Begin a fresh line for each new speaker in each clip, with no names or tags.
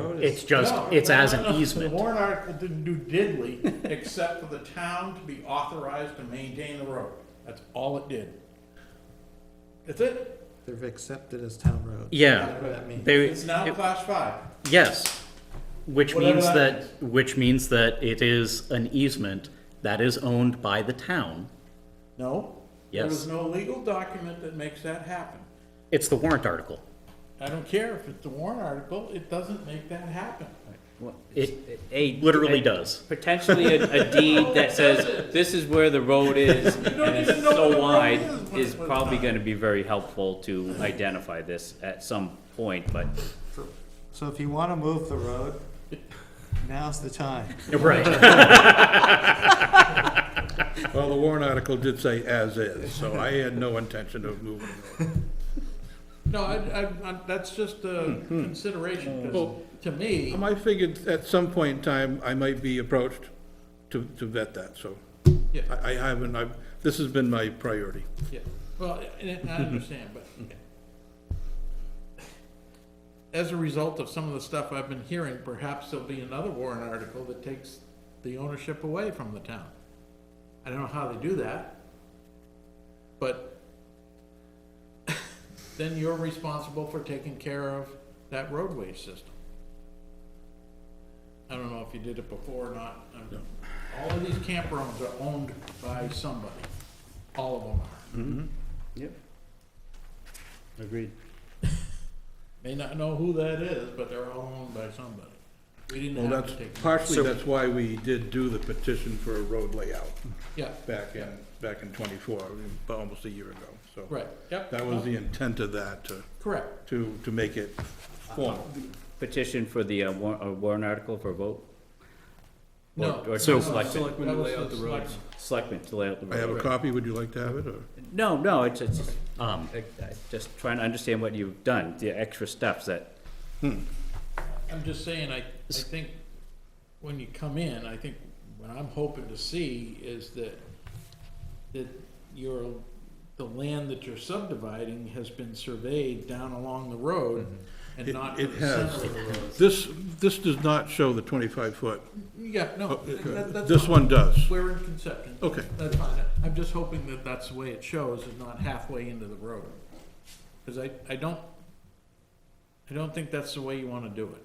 It's just,
No,
it's
no,
as
no,
an
no. The
easement.
warrant article didn't do diddly, except for the town to be authorized to maintain the road. That's all it did. That's it.
They've accepted as town road.
Yeah,
Whatever that means.
they,
It's now
it-
class five.
yes, which
Whatever
means
that
that, which means that it is an easement that is owned by the town.
No? There
Yes.
was no legal document that makes that happen.
It's the warrant article.
I don't care if it's the warrant article, it doesn't make that happen.
Well,
It
a-
literally
a-
does.
Potentially a, a deed that says, this is where the road is, and
don't
it's
even know where the
so
road
wide,
is when
is
it was
probably
done.
gonna be very helpful to identify this at some point, but
So if you wanna move the road, now's the time.
Right.
Well, the warrant article did say as is, so I had no intention of moving it.
No, I, I, I- that's just a consideration, 'cause
Well-
to me,
Um, I figured at some point in time, I might be approached to, to vet that, so.
Yeah.
I, I haven't, I've, this has been my priority.
Yeah, well, and I understand, but as a result of some of the stuff I've been hearing, perhaps there'll be another warrant article that takes the ownership away from the town. I don't know how they do that, but then you're responsible for taking care of that roadway system. I don't know if you did it before or not. I'm- All of these campgrounds are owned by somebody. All of them are.
Mm-hmm.
Agreed.
May not know who that is, but they're all owned by somebody. We
Well,
didn't have
that's,
to take.
partially, that's why we did do the petition for a road layout
Yeah,
back in, back in twenty-four, about almost a year ago, so.
right, yep. Uh,
That was the intent of that, to,
Correct.
to, to make it formal.
Petition for the uh, war- uh, warrant article for vote? Or-
No.
Or
So-
to selectmen,
Selectmen to lay out the roads.
selectmen to lay out the
I have a
road.
copy, would you like to have it, or?
No, no, it's, it's,
Um,
I- I just trying to understand what you've done, the extra steps that,
I'm just saying, I, I think when you come in, I think what I'm hoping to see is that, that your, the land that you're subdividing has been surveyed down along the road and
It-
not to
it
the
has.
center of the road.
This, this does not show the twenty-five foot.
Yeah, no, that, that's.
Oh, This
fine.
one does.
We're in conception.
Okay.
That's fine. I'm just hoping that that's the way it shows, is not halfway into the road. Because I, I don't, I don't think that's the way you want to do it.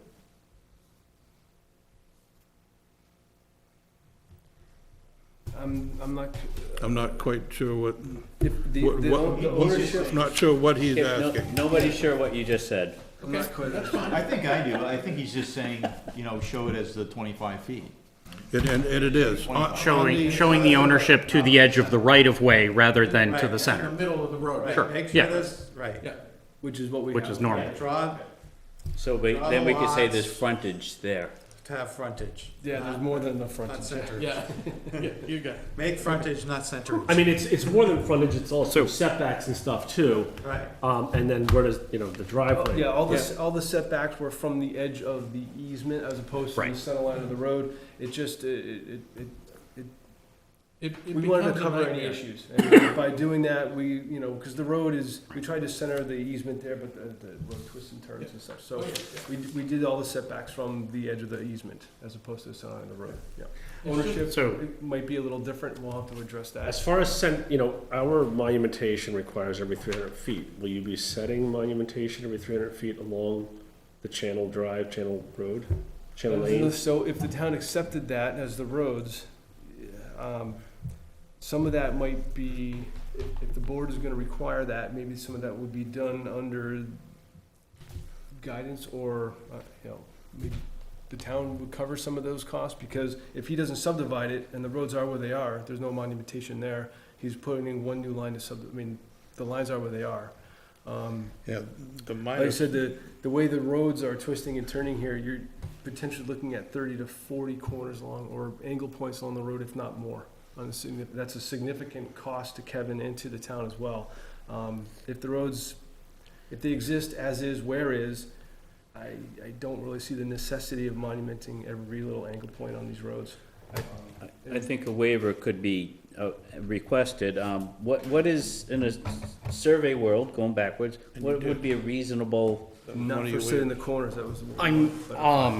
I'm, I'm not,
I'm not quite sure what,
if the,
what,
the
what-
the ownership,
not sure what he's
if no-
asking.
nobody's sure what you just said.
I'm not quite,
I think I do. I think he's just saying, you know, show it as the twenty-five feet.
And, and and it is. On- on
showing,
the-
showing the ownership to the edge of the right of way rather than to the
In
center,
the middle of the road.
Sure.
Make
yeah.
sure this, right,
Yeah,
which is what we have.
which is normal.
draw
So we, then we could say there's frontage there.
to have frontage,
Yeah, there's more than enough
not
frontage.
center.
yeah, yeah, you got it.
Make frontage, not center,
I mean, it's, it's more than frontage, it's also setbacks and stuff too.
right.
Um, and then where does, you know, the driveway.
Yeah, all the, s- all the setbacks were from the edge of the easement as opposed to the
Right.
center line of the road. It just, it, it, it-
It- it
it, we wanted to
becomes a
cover any
nightmare.
issues. And By doing that, we, you know, because the road is, we tried to center the easement there, but the, the road twists and turns and stuff.
Oh,
So we, we did all the setbacks from the edge of the easement as opposed to the center line of the road, yeah. Ownership,
So-
it might be a little different. We'll have to address that.
As far as sent, you know, our monumentation requires every three hundred feet. Will you be setting monumentation every three hundred feet along the channel drive, channel road, channel lane?
So if the town accepted that as the roads, um, some of that might be, if- if the board is gonna require that, maybe some of that would be done under guidance or, uh, you know, maybe the town would cover some of those costs, because if he doesn't subdivide it and the roads are where they are, there's no monumentation there, he's putting in one new line to sub, I mean, the lines are where they are. Um,
Yeah, the
like I
minor,
said, the, the way the roads are twisting and turning here, you're potentially looking at thirty to forty corners along or angle points along the road, if not more. On the signi- That's a significant cost to Kevin and to the town as well. Um, if the roads, if they exist as is, where is, I, I don't really see the necessity of monumenting every little angle point on these roads.
I think a waiver could be uh, requested. Um, What, what is, in a survey world, going backwards, what would be a reasonable
That was one
Not
of
for
your
sit in
weird-
the corners, that was the word.
I'm,
But-
um,